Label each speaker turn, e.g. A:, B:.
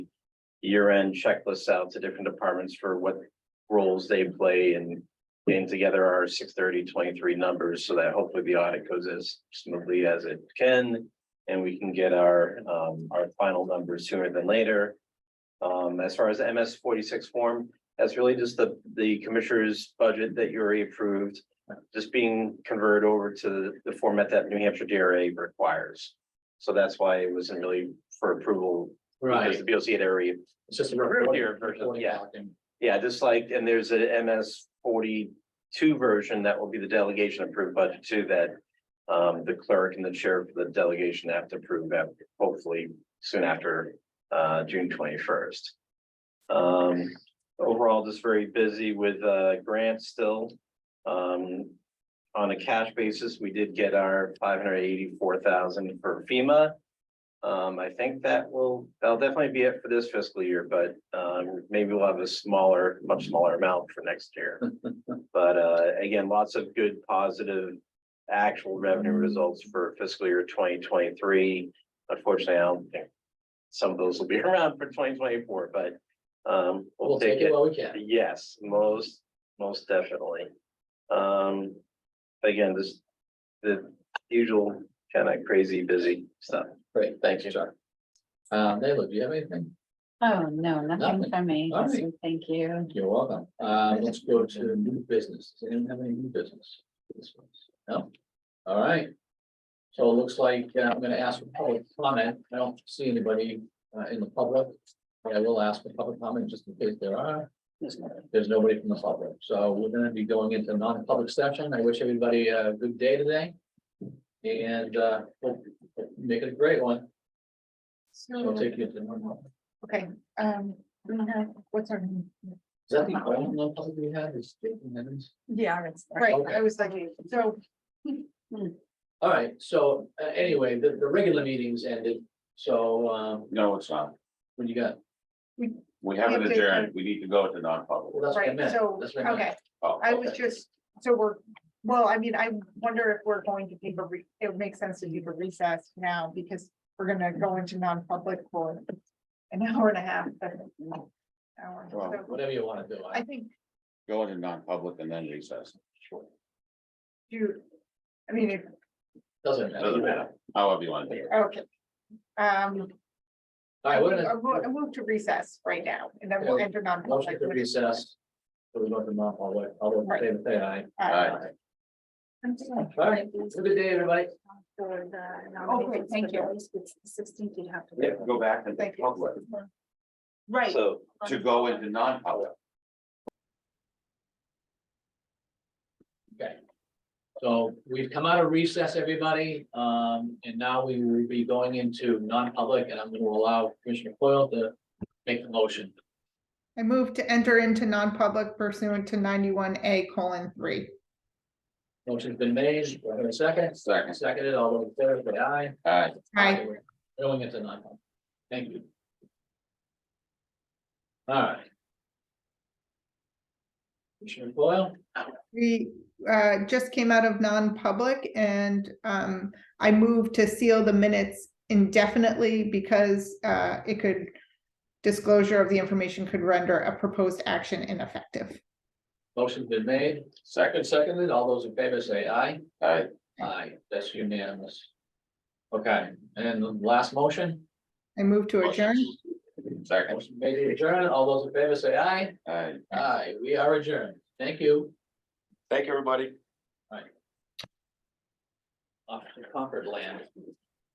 A: year-end checklists out to different departments for what roles they play and getting together our 630-23 numbers so that hopefully the audit goes as smoothly as it can. And we can get our, um, our final numbers sooner than later. Um, as far as the MS forty-six form, that's really just the, the commissioner's budget that you already approved. Just being converted over to the format that New Hampshire DRA requires. So that's why it wasn't really for approval because
B: Right.
A: the B O C had already,
B: It's just a
A: Earlier version, yeah. yeah, just like, and there's a MS forty-two version that will be the delegation approved budget too, that. Um, the clerk and the chair for the delegation have to approve that hopefully soon after, uh, June twenty-first. Um, overall, just very busy with, uh, grants still. Um, on a cash basis, we did get our five hundred eighty-four thousand for FEMA. Um, I think that will, that'll definitely be it for this fiscal year, but, um, maybe we'll have a smaller, much smaller amount for next year. But, uh, again, lots of good, positive, actual revenue results for fiscal year twenty twenty-three. Unfortunately, I don't think some of those will be around for twenty twenty-four, but, um,
B: We'll take it while we can.
A: Yes, most, most definitely. Um, again, this, the usual kind of crazy busy stuff.
B: Great,
A: Thank you.
B: Chuck. Um, Nayla, do you have anything?
C: Oh, no, nothing
B: Nothing.
C: from me.
B: All right.
C: So Thank you.
B: You're welcome. Uh, let's go to new business. Does anyone have any new business? No? All right. So it looks like uh, I'm gonna ask for public comment. I don't see anybody uh in the public. but I will ask for public comment just in case there are. There's nobody from the public, so we're gonna be going into non-public session. I wish everybody a good day today. And uh, hope- hope you make it a great one. We'll
C: So,
B: take you to normal.
C: okay, um, we have, what's our?
B: Is that the only non-public we have is Jason Evans?
C: Yeah, it's.
B: Right, Okay. I
C: was like, so.
B: All right, so uh, anyway, the, the regular meetings ended, so um,
D: No, it's not.
B: what do you got?
D: We haven't
E: have to-
D: adjourned. We need to go to non-public.
B: Well, that's what I
E: Right,
B: meant.
E: so,
B: That's what I meant.
E: Okay,
D: Oh,
E: I was
B: okay.
E: just, so we're, well, I mean, I wonder if we're going to give a, re- it would make sense to give a recess now because we're gonna go into non-public for an hour and a half. but- hour.
D: Well,
E: So
B: Whatever you want to do.
E: I
B: I-
E: think
D: Go into non-public and then recess.
E: you, I mean, if,
B: Doesn't
D: Doesn't
B: matter.
D: matter. However you want to do it.
E: okay. Um,
B: All right, we're gonna,
E: I uh, will, I will to recess right now and then we'll enter
B: motion
E: non-public.
B: to recess. So we go to non-public, all those in favor, say aye.
E: Uh,
B: All right, have a good day, everybody.
E: nominations for
C: thank
E: the
C: you. Sixteenth, you'd have to.
D: We have to go back and
E: Thank you.
D: public,
E: Right.
A: So
D: to go into non-public.
B: Okay. So we've come out of recess, everybody, um, and now we will be going into non-public and I'm gonna allow Commissioner Coyle to make the motion.
E: I move to enter into non-public pursuant to ninety-one A colon three.
B: Motion's been made, we're gonna second.
D: Second.
B: Seconded, all those in favor, say aye.
D: All right.
E: Aye.
B: We're Going into nine. Thank you. All right. Commissioner Foil,
E: We uh, just came out of non-public and um, I moved to seal the minutes indefinitely because uh, it could, disclosure of the information could render a proposed action ineffective.
B: motion's been made, second,
D: Second.
B: seconded, all those in favor say aye.
D: All right.
B: Aye, that's unanimous. Okay, and the last motion?
E: I move to adjourn.
D: Second.
B: Motion made to adjourn, all those in favor say aye.
D: All right.
B: Aye, we are adjourned, thank you.
D: Thank you, everybody.
B: Off to Concord land.